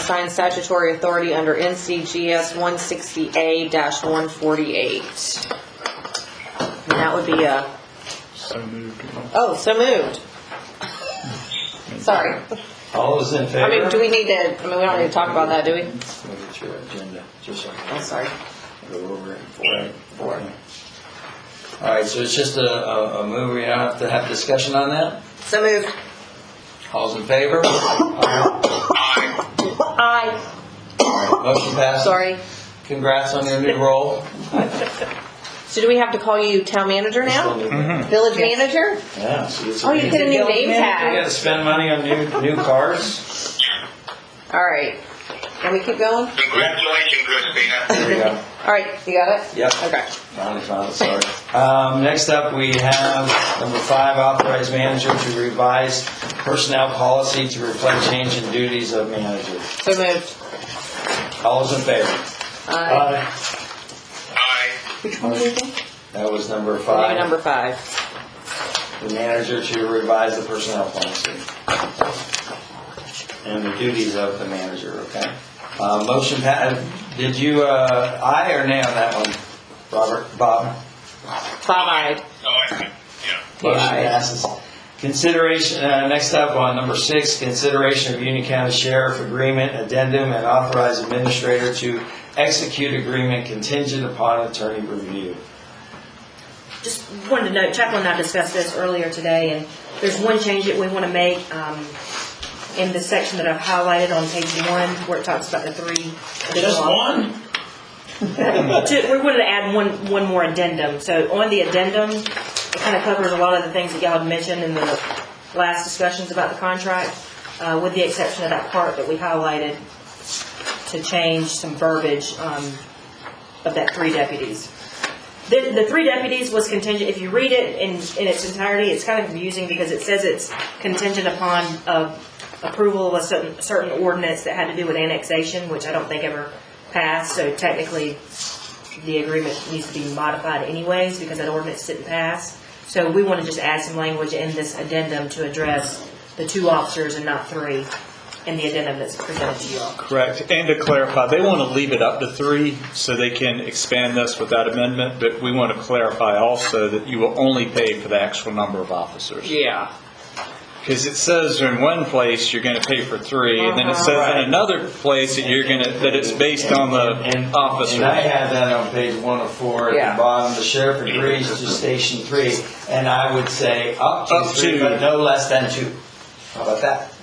assigned statutory authority under NCGS 160A-148. And that would be a, So moved. oh, so moved. Sorry. All those in favor? I mean, do we need to, I mean, we don't need to talk about that, do we? Look at your agenda, just so I I'm can sorry. go over it for, for it. All right, so it's just a, a, a move, we don't have to have discussion on that? So moved. All's in favor? All Aye. right, Motion passes. Sorry. Congrats on your new role. So do we have to call you town manager now? Yeah, Village manager? so Mm-hmm. it's. Oh, you get a new name You tag. gotta spend money on new, new cars. All right. Can we keep going? Congratulations, Christina. There we go. All right, you got it? Yep. Okay. Finally found it, sorry. Um, next up, we have number five, authorized manager to revise personnel policy to reflect change in duties of manager. So moved. Uh, All those in favor? Aye. Aye. That was number Maybe five, number five. the manager to revise the personnel policy. And the duties of the manager, okay? Uh, motion, pa- did you, uh, aye or nay on that one? Robert, Bob? Five-eyed. Oh, I, yeah. Motion Aye. passes. Consideration, uh, next up on number six, consideration of Union County Sheriff Agreement Addendum and authorize administrator to execute agreement contingent upon attorney review. just wanted to note, Chaplain and I discussed this earlier today, and there's one change that we want to make um, in the section that I've highlighted on page one, where it talks about the three. Just one? To- We wanted to add one, one more addendum. So on the addendum, it kind of covers a lot of the things that y'all had mentioned in the last discussions about the contract, uh, with the exception of that part that we highlighted to change some verbiage um, of that three deputies. The, the three deputies was contingent, if you read it in, in its entirety, it's kind of confusing because it says it's contingent upon uh, approval of a certain, certain ordinance that had to do with annexation, which I don't think ever passed, so technically the agreement needs to be modified anyways because that ordinance didn't pass. So we want to just add some language in this addendum to address the two officers and not three in the addendum that's presented to you all. Correct. And to clarify, they want to leave it up to three so they can expand this without amendment, but we want to clarify also that you will only pay for the actual number of officers. Yeah. Because it says in one place you're going to pay for three, and then it says in Right. another place that you're going to, that it's based on the And- officer. And I have that on page one of four, at Yeah. the bottom, the sheriff agrees to station three, and I would say up to Up three, to. but no less than two. How about that?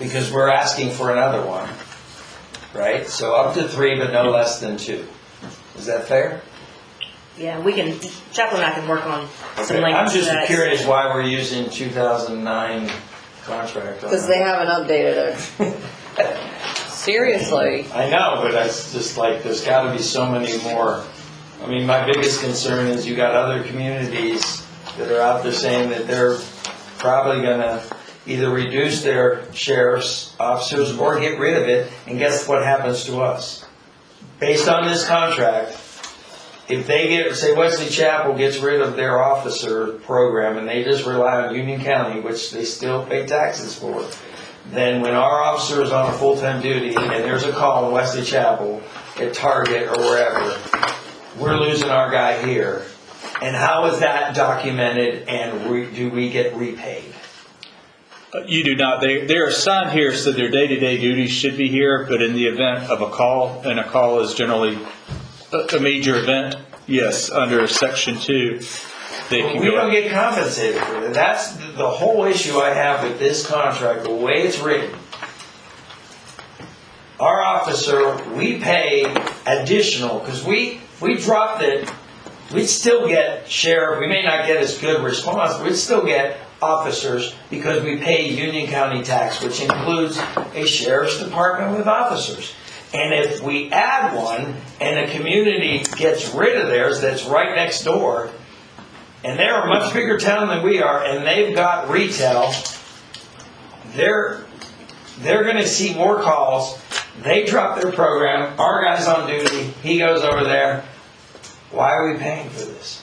Because we're asking for another one, right? So up to three, but no less than two. Is that fair? Yeah, we can, Chaplain and I can work on Okay, some I'm language to just that. curious why we're using 2009 contract on Because that. they haven't updated it. Seriously. I know, but it's just like, there's gotta be so many more. I mean, my biggest concern is you got other communities that are out there saying that they're probably gonna either reduce their sheriff's officers or get rid of it, and guess what happens to us? Based on this contract, if they get, say Wesley Chapel gets rid of their officer program and they just rely on Union County, which they still pay taxes for, then when our officer is on a full-time duty and there's a call in Wesley Chapel at Target or wherever, we're losing our guy here. And how is that documented and re- do we get repaid? Uh, You do not. They, they're assigned here, so their day-to-day duties should be here, but in the event of a call, and a call is generally a, a major event, yes, under section two, they can We don't go. get compensated for that. That's the the whole issue I have with this contract, the way it's written. Our officer, we pay additional, because we, we dropped it, we'd still get sheriff, we may not get as good response, we'd still get officers because we pay Union County tax, which includes a sheriff's department with officers. And if we add one and a community gets rid of theirs that's right next door, and they're a much bigger town than we are, and they've got retail. They're they're going to see more calls. They drop their program. Our guy's on duty. He goes over there. Why are we paying for this?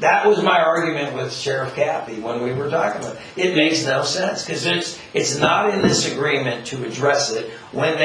That was my argument with Sheriff Cappy when we were talking about it. It makes no sense because it's it's not in this agreement to address it when they.